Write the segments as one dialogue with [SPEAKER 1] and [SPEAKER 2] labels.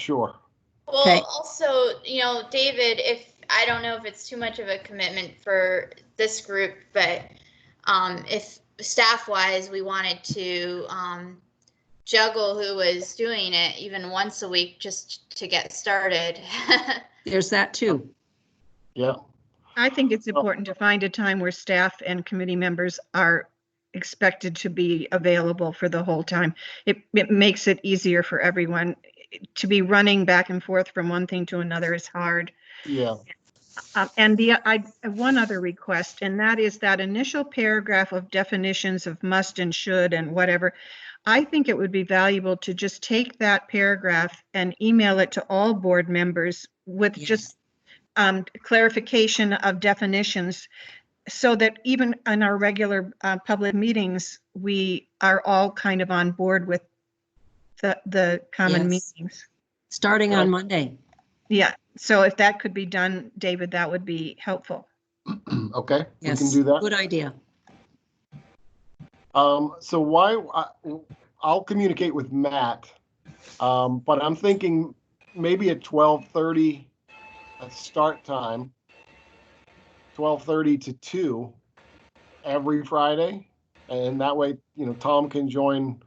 [SPEAKER 1] Sure.
[SPEAKER 2] Okay.
[SPEAKER 3] Well, also, you know, David, if, I don't know if it's too much of a commitment for this group, but um, if staff-wise, we wanted to um, juggle who was doing it even once a week just to get started.
[SPEAKER 2] There's that too.
[SPEAKER 1] Yeah.
[SPEAKER 4] I think it's
[SPEAKER 1] Well-
[SPEAKER 4] important to find a time where staff and committee members are expected to be available for the whole time. It, it makes it easier for everyone. To be running back and forth from one thing to another is hard.
[SPEAKER 1] Yeah.
[SPEAKER 4] Um, And the, I, one other request, and that is that initial paragraph of definitions of must and should and whatever. I think it would be valuable to just take that paragraph and email it to all board members with just um, clarification of definitions so that even in our regular uh, public meetings, we are all kind of on board with the, the common
[SPEAKER 2] Yes.
[SPEAKER 4] meetings.
[SPEAKER 2] Starting
[SPEAKER 1] Right.
[SPEAKER 2] on Monday.
[SPEAKER 4] Yeah, so if that could be done, David, that would be helpful.
[SPEAKER 1] Okay, we can
[SPEAKER 2] Yes.
[SPEAKER 1] do that.
[SPEAKER 2] Good idea.
[SPEAKER 1] Um, so why, I- I'll communicate with Matt. Um, but I'm thinking maybe at twelve thirty, a start time. Twelve thirty to two every Friday. And that way, you know, Tom can join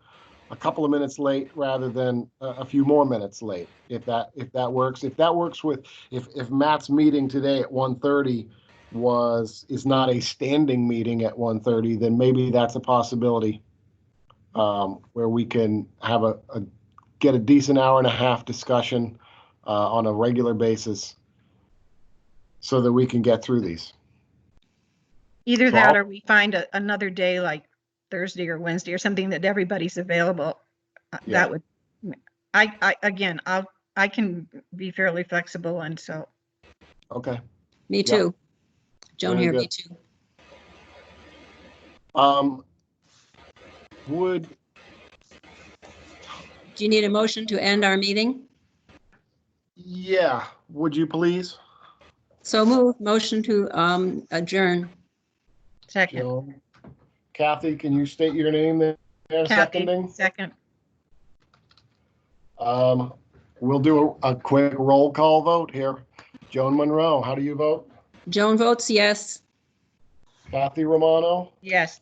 [SPEAKER 1] a couple of minutes late rather than a, a few more minutes late, if that, if that works. If that works with, if, if Matt's meeting today at 1:30 was, is not a standing meeting at 1:30, then maybe that's a possibility. Um, where we can have a, a, get a decent hour and a half discussion, uh, on a regular basis. So that we can get through these.
[SPEAKER 4] Either
[SPEAKER 1] So
[SPEAKER 4] that
[SPEAKER 1] I'll-
[SPEAKER 4] or we find a- another day like Thursday or Wednesday or something that everybody's available. Uh,
[SPEAKER 1] Yeah.
[SPEAKER 4] That would, I, I, again, I'll, I can be fairly flexible and so,
[SPEAKER 1] Okay.
[SPEAKER 2] Me
[SPEAKER 1] Yeah.
[SPEAKER 2] too. Joan
[SPEAKER 1] Very
[SPEAKER 2] here,
[SPEAKER 1] good.
[SPEAKER 2] me too.
[SPEAKER 1] Um, would,
[SPEAKER 2] Do you need a motion to end our meeting?
[SPEAKER 1] yeah, would you please?
[SPEAKER 2] So move, motion to um, adjourn.
[SPEAKER 4] second,
[SPEAKER 1] Joan? Kathy, can you state your name there
[SPEAKER 4] Kathy.
[SPEAKER 1] seconding?
[SPEAKER 4] second,
[SPEAKER 1] Um, we'll do a, a quick roll call vote here. Joan Monroe, how do you vote?
[SPEAKER 2] Joan votes yes.
[SPEAKER 1] Kathy Romano,
[SPEAKER 4] yes.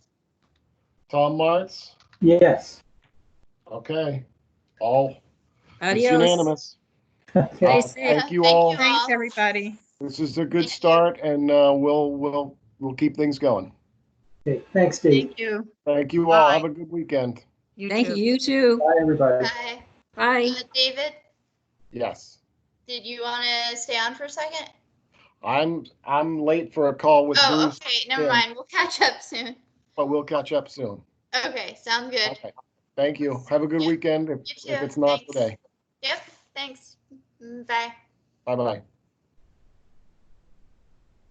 [SPEAKER 1] Tom Martz?
[SPEAKER 5] Yes.
[SPEAKER 1] Okay, all it's
[SPEAKER 2] Adios.
[SPEAKER 1] unanimous.
[SPEAKER 5] Okay.
[SPEAKER 1] Uh,
[SPEAKER 2] safe.
[SPEAKER 1] Thank you
[SPEAKER 3] Thank
[SPEAKER 1] all.
[SPEAKER 3] you.
[SPEAKER 4] Thanks, everybody.
[SPEAKER 1] This is a good start and, uh, we'll, we'll, we'll keep things going.
[SPEAKER 5] Okay. Thanks, Dave.
[SPEAKER 4] Thank you.
[SPEAKER 1] Thank you all.
[SPEAKER 3] Bye.
[SPEAKER 1] Have a good weekend.
[SPEAKER 2] Thank you,
[SPEAKER 4] too.
[SPEAKER 2] you too.
[SPEAKER 5] Bye, everybody.
[SPEAKER 3] Hi,
[SPEAKER 2] Bye.
[SPEAKER 3] Uh, David,
[SPEAKER 1] Yes.
[SPEAKER 3] did you want to stay on for a second?
[SPEAKER 1] I'm, I'm late for a call with
[SPEAKER 3] Oh,
[SPEAKER 1] Bruce,
[SPEAKER 3] okay, never
[SPEAKER 1] yeah.
[SPEAKER 3] mind. We'll catch up soon.
[SPEAKER 1] but we'll catch up soon.
[SPEAKER 3] Okay, sounds good.
[SPEAKER 1] Okay. Thank you. Have a good
[SPEAKER 3] Yeah.
[SPEAKER 1] weekend if,
[SPEAKER 3] You
[SPEAKER 1] if
[SPEAKER 3] too.
[SPEAKER 1] it's not
[SPEAKER 3] Thanks.
[SPEAKER 1] today.
[SPEAKER 3] Yep, thanks. Mm, Bye.
[SPEAKER 1] Bye-bye.